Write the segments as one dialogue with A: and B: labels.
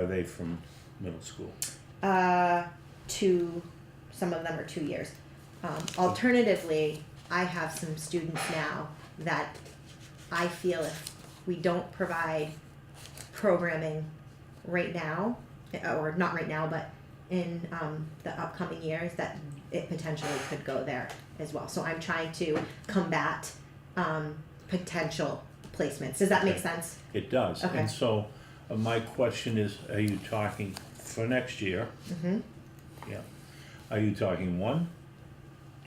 A: Are they from middle school?
B: Uh, two, some of them are two years. Um, alternatively, I have some students now that I feel if we don't provide programming right now, or not right now, but in um, the upcoming years, that it potentially could go there as well. So I'm trying to combat um, potential placements. Does that make sense?
A: It does.
B: Okay.
A: And so uh, my question is, are you talking for next year?
B: Mm-hmm.
A: Yeah. Are you talking one,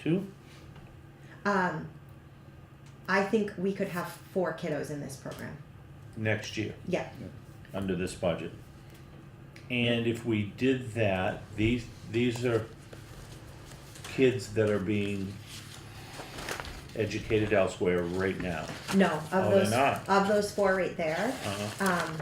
A: two?
B: Um, I think we could have four kiddos in this program.
A: Next year,
B: Yeah.
A: under this budget. And if we did that, these, these are kids that are being educated elsewhere right now.
B: No, of
A: Oh, they're
B: those
A: not.
B: of those four right there.
A: Uh-huh.
B: Um,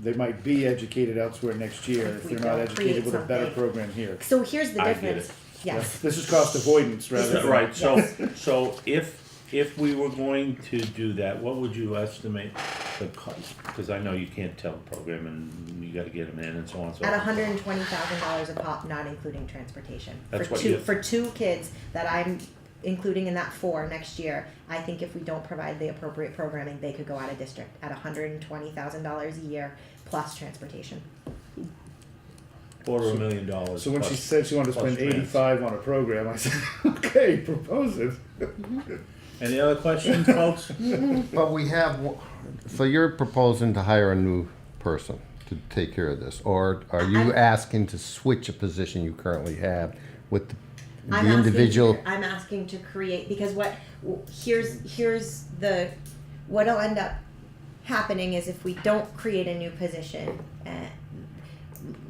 C: They might be educated elsewhere next year
B: If
C: if
B: we
C: they're not
B: don't
C: educated
B: create
C: with a better
B: something.
C: program here.
B: so here's the
A: I get
B: difference.
A: it.
B: Yes.
C: This is cost avoidance
B: This
C: rather
B: is-
C: than.
A: Right, so, so if, if we were going to do that, what would you estimate the cost? Because I know you can't tell the program and you gotta get them in and so on and so
B: At
A: forth.
B: one hundred and twenty thousand dollars a pop, not including transportation.
A: That's
B: for
A: what
B: two
A: you-
B: for two kids that I'm including in that four next year. I think if we don't provide the appropriate programming, they could go out of district at one hundred and twenty thousand dollars a year plus transportation.
A: Quarter of a million dollars.
C: So when she
A: plus-
C: said she wanted to
A: plus
C: spend
A: grants.
C: eighty-five on a program, I said, okay, propose it.
A: Any other questions, folks?
D: But we have, w- so you're proposing to hire a new person to take care of this, or are you
B: I'm-
D: asking to switch a position you currently have with the-
B: I'm
D: the individual?
B: Asking, I'm asking to create because what w- here's here's the what'll end up happening is if we don't create a new position, uh,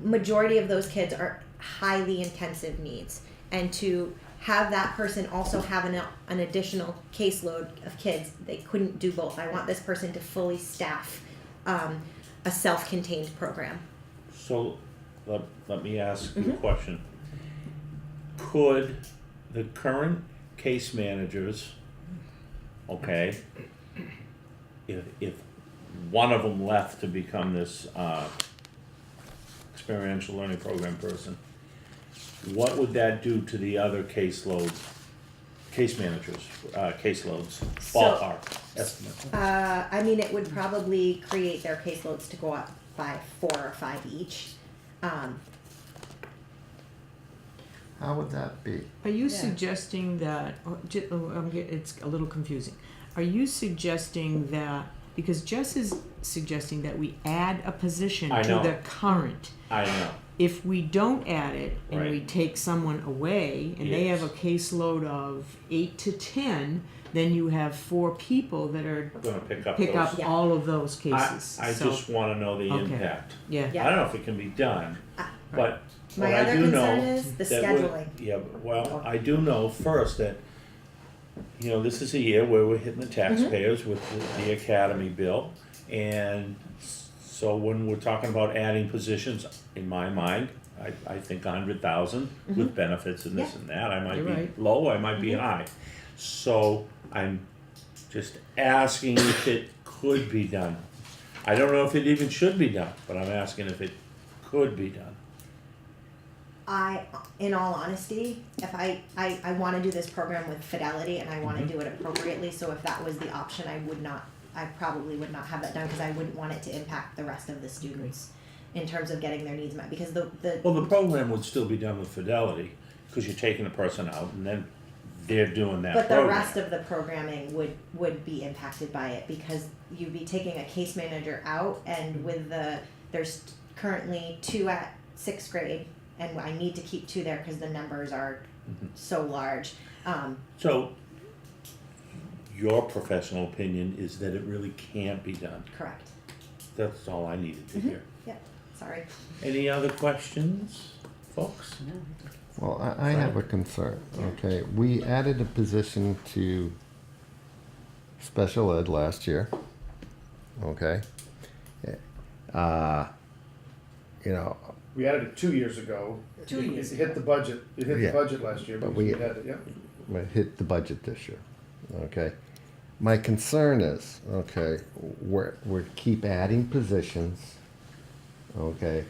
B: majority of those kids are highly intensive needs, and to have that person also have an, an additional caseload of kids, they couldn't do both. I want this person to fully staff um, a self-contained program.
A: So, let, let me ask you
E: Mm-hmm.
A: a question. Could the current case managers, okay, if, if one of them left to become this, uh, experiential learning program person, what would that do to the other caseloads, case managers, uh, caseloads,
B: So-
A: ballpark estimate?
B: Uh, I mean, it would probably create their caseloads to go up by four or five each. Um,
D: How would that be?
E: Are you
B: Yeah.
E: suggesting that, or ju- oh, I'm get- it's a little confusing. Are you suggesting that, because Jess is suggesting that we add a position
A: I
E: to
A: know.
E: the current.
A: I know,
E: If we don't add it and we
A: Right.
E: take someone away and they have a caseload of eight to ten, then you have four people that are,
A: gonna pick up those.
E: pick up
B: Yeah.
E: all of those
A: I,
E: cases.
A: I
E: So,
A: just wanna know the
E: Okay.
A: impact.
E: Yeah.
B: Yeah.
A: I don't know if it can be done,
B: Ah.
A: but what
B: my
A: I
B: other
A: do
B: concern
A: know.
B: is the
A: that we-
B: scheduling.
A: Yeah, well, I do know first that, you know, this is a year where we're hitting the
B: Mm-hmm.
A: taxpayers with the, the academy bill. And so when we're talking about adding positions, in my mind, I, I think a hundred thousand with benefits and this
B: Mm-hmm. Yeah.
A: and
B: Mm-hmm.
A: that, I might
E: You're
A: be
E: right.
A: low, I might be high. So I'm just asking if it could be done. I don't know if it even should be done, but I'm asking if it could be done.
B: I, in all honesty, if I, I, I want to do this program with fidelity and I want to do it appropriately. So if that was the option, I would not, I probably would not have that done because I wouldn't want it to impact the rest of the students in terms of getting their needs met. Because the, the
A: Well, the program would still be done with fidelity, because you're taking the person out and then they're doing that
B: But the
A: program.
B: rest of the programming would, would be impacted by it because you'd be taking a case manager out and with the, there's currently two at sixth grade and I need to keep two there because the numbers are
A: Mm-hmm.
B: so large. Um,
A: So, your professional opinion is that it really can't be done.
B: correct.
A: That's all I needed to hear.
B: Yep, sorry.
A: Any other questions, folks?
D: Well, I, I have a concern, okay? We added a position to special ed last year, okay? Uh, You know,
C: We added it two years ago.
E: Two
C: It-
E: years
C: It hit the budget, it hit
D: Yeah.
C: the budget last year,
D: But
C: but
D: we-
C: we had, it, yeah.
D: we hit the budget this year. Okay. My concern is, okay, we're, we keep adding positions. okay?